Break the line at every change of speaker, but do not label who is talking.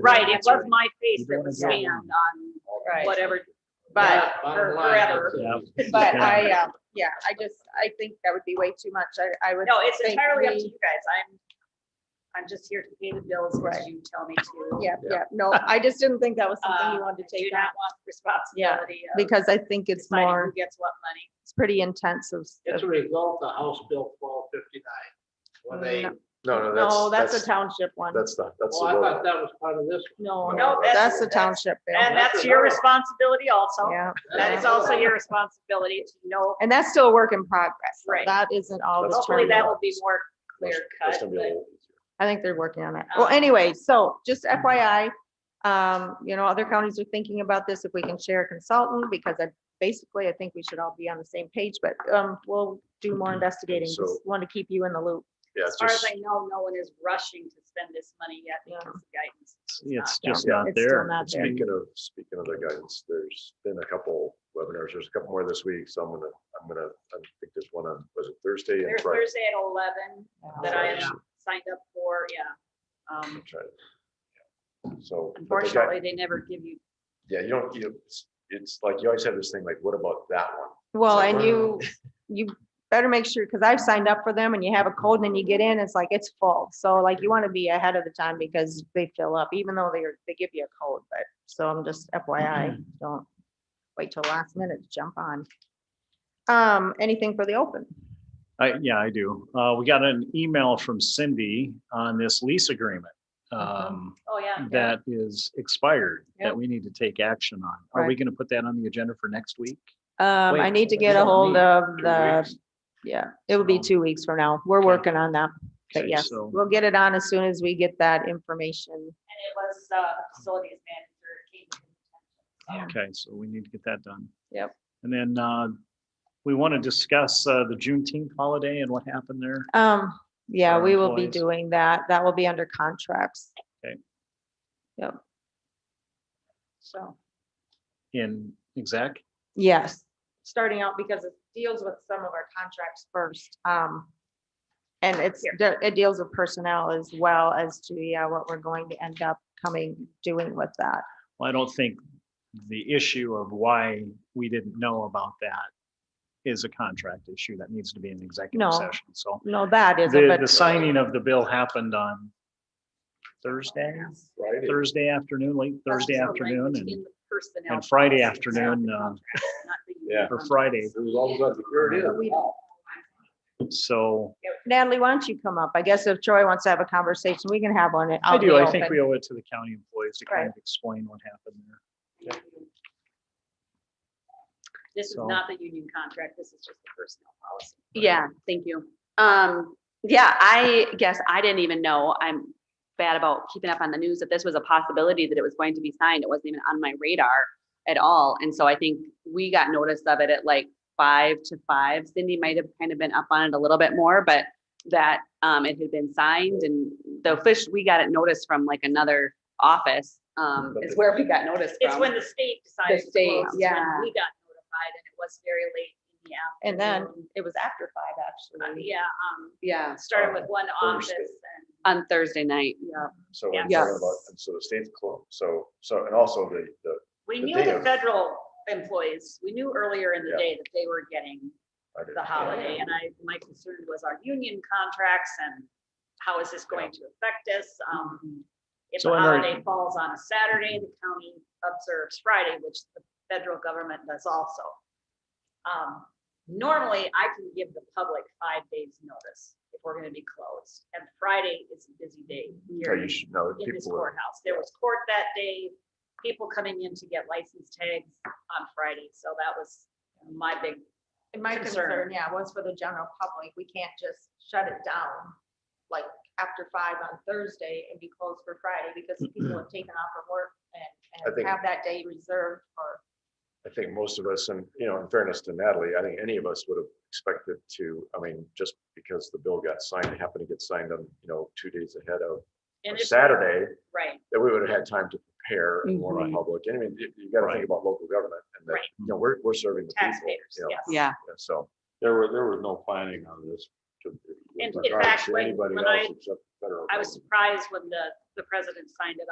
Right, it was my
You
face
don't
that was
want to
scanned
go-
on
Right,
whatever.
but,
Bottom
for
line,
forever.
that's it.
but I,
uh,
um, yeah, I just, I think that would be way too much. I, I would.
No, it's
think
entirely up to
we-
you guys. I'm, I'm just here to pay the bills as
Right.
you tell me to.
Yeah, yeah, no, I just didn't think that was something
Uh,
you wanted
I
to take
Do
out
not want responsibility of
because I think it's
deciding who
more,
gets what money.
it's pretty intensive.
It's a result of House Bill twelve fifty-nine. When they,
No,
No, no, that's.
No, that's a township one.
That's not, that's
well, I
the road.
thought that was part of this.
No,
No,
no,
that's-
that's a
that's-
township bill.
And
that's
that's your
another one.
responsibility also.
Yeah,
That is also your responsibility to know.
and that's still a work in progress. so
Right.
That isn't all
That's
Hopefully
determined.
that will be more clear
That's- that's
cut,
gonna be a
but
little easier.
I think they're working on it. Well,
Um,
anyway, so just FYI, um, you know, other counties are thinking about this, if we can share a consultant, because I, basically, I think we should all be on the same page, but, um, we'll do more investigating.
So-
Just want to keep you in the loop.
Yeah,
as far as
just,
I know, no one is rushing to spend this money yet because of guidance.
It's
Yeah,
just not
it's still
there.
not there.
speaking of, speaking of the guidance, there's been a couple webinars, there's a couple more this week, so I'm gonna, I'm gonna, I think there's one on, was it Thursday and
There's
Friday?
Thursday at eleven that I
Yeah.
signed up for, yeah. Um,
I'm trying to- yeah. So. but the guy-
Unfortunately, they never give you,
Yeah, you don't, you, it's- it's like, you always have this thing like, what about that one?
Well,
like,
and
we're-
you, you better make sure, because I've signed up for them and you have a code and then you get in, it's like, it's full. So like you want to be ahead of the time because they fill up, even though they're, they give you a code, but, so I'm just
Mm-hmm.
FYI, don't wait till last minute to jump on. Um, anything for the open?
I, yeah, I do. Uh, we got an email from Cindy on this lease agreement. Um,
oh, yeah.
that is expired,
Yep.
that we need to take action on. Are we
Right.
gonna put that on the agenda for next week?
Um, I
Wait,
need to
we
get a
don't
hold
meet
of
Two
the,
weeks?
yeah, it will be
So-
two weeks from now. We're
Okay.
working on that. But
Okay,
yes,
so-
we'll get it on as soon as we get that information.
And it was, uh, facilities manager. Kate.
Okay, so we need to get that done.
Yep.
And then, uh, we want to discuss, uh, the Juneteenth holiday and what happened there.
Um, yeah,
our
we will be
employees.
doing that. That will be under contracts.
Okay.
Yep. So,
in exec.
yes, starting out because it deals with some of our contracts first. Um, and it's, it deals with personnel as well as to, yeah, what we're going to end up coming, doing with that.
Well, I don't think the issue of why we didn't know about that is a contract issue that needs to be an
No.
executive session. So
No, that isn't,
the, the
but
signing of the bill happened on Thursday,
Friday.
Thursday afternoon, late
Oh,
That's
Thursday
the
afternoon
language in
and,
the personnel
and Friday
policy. It's not
afternoon,
the
uh,
contract, it's not the
Yeah.
or Friday.
It was all about the period.
We-
So
Natalie, why don't you come up? I guess if Troy wants to have a conversation, we can have one.
I do, I think we owe it to the county employees to kind
Right.
of explain what happened there.
This is
So-
not the union contract. This is just the personnel policy.
Right.
Yeah, thank you. Um, yeah, I guess I didn't even know. I'm bad about keeping up on the news that this was a possibility that it was going to be signed. It wasn't even on my radar at all. And so I think we got notice of it at like five to five. Cindy might have kind of been up on it a little bit more, but that um it had been signed and the official, we got it noticed from like another office. Um,
But
is
the-
where we got noticed from.
It's when the state decided. to
state,
close, when
yeah.
We got notified and it was very late in the
And then
afternoon.
it was after five,
Uh,
actually.
Yeah, um,
Yeah,
started with one office
Thursday.
and.
on Thursday night. Yeah.
So we're talking
Yes.
about, and so the state's closed, so, so, and also the, the,
We
The
knew
day
the
of-
federal employees, we knew earlier in the
Yeah.
day that they were getting
I didn't-
the holiday. And I, my concern was our union contracts and how is this going to affect us? Um, If
So
the
in our-
holiday falls on a Saturday, the county observes Friday, which the federal government does also. Um, Normally, I can give the public five days notice if we're gonna be closed. And Friday is a busy day
Yeah,
here
Oh, you should know,
in this
people are.
courthouse. There was court that day, people coming in to get license tags on Friday. So that was my big
And my
concern.
concern, yeah, was for the general public, we can't just shut it down, like, after five on Thursday and be closed for Friday, because people have taken off from work
I
and, and
think-
have that day reserved for,
I think most of us, and you know, in fairness to Natalie, I think any of us would have expected to, I mean, just because the bill got signed, it happened to get signed on, you know, two days ahead of
And
of
it's-
Saturday,
Right,
that we would have had time to prepare and warn
Mhm.
the public. And I mean, you- you gotta
Right.
think about local government and that,
Right.
you know, we're, we're serving the people.
taxpayers,
you know,
yes.
Yeah.
and So there were, there was no planning on this. to- with
And in
regards
fact,
to
when-
anybody
when I-
else except the federal
I was
government.
surprised when the, the president signed it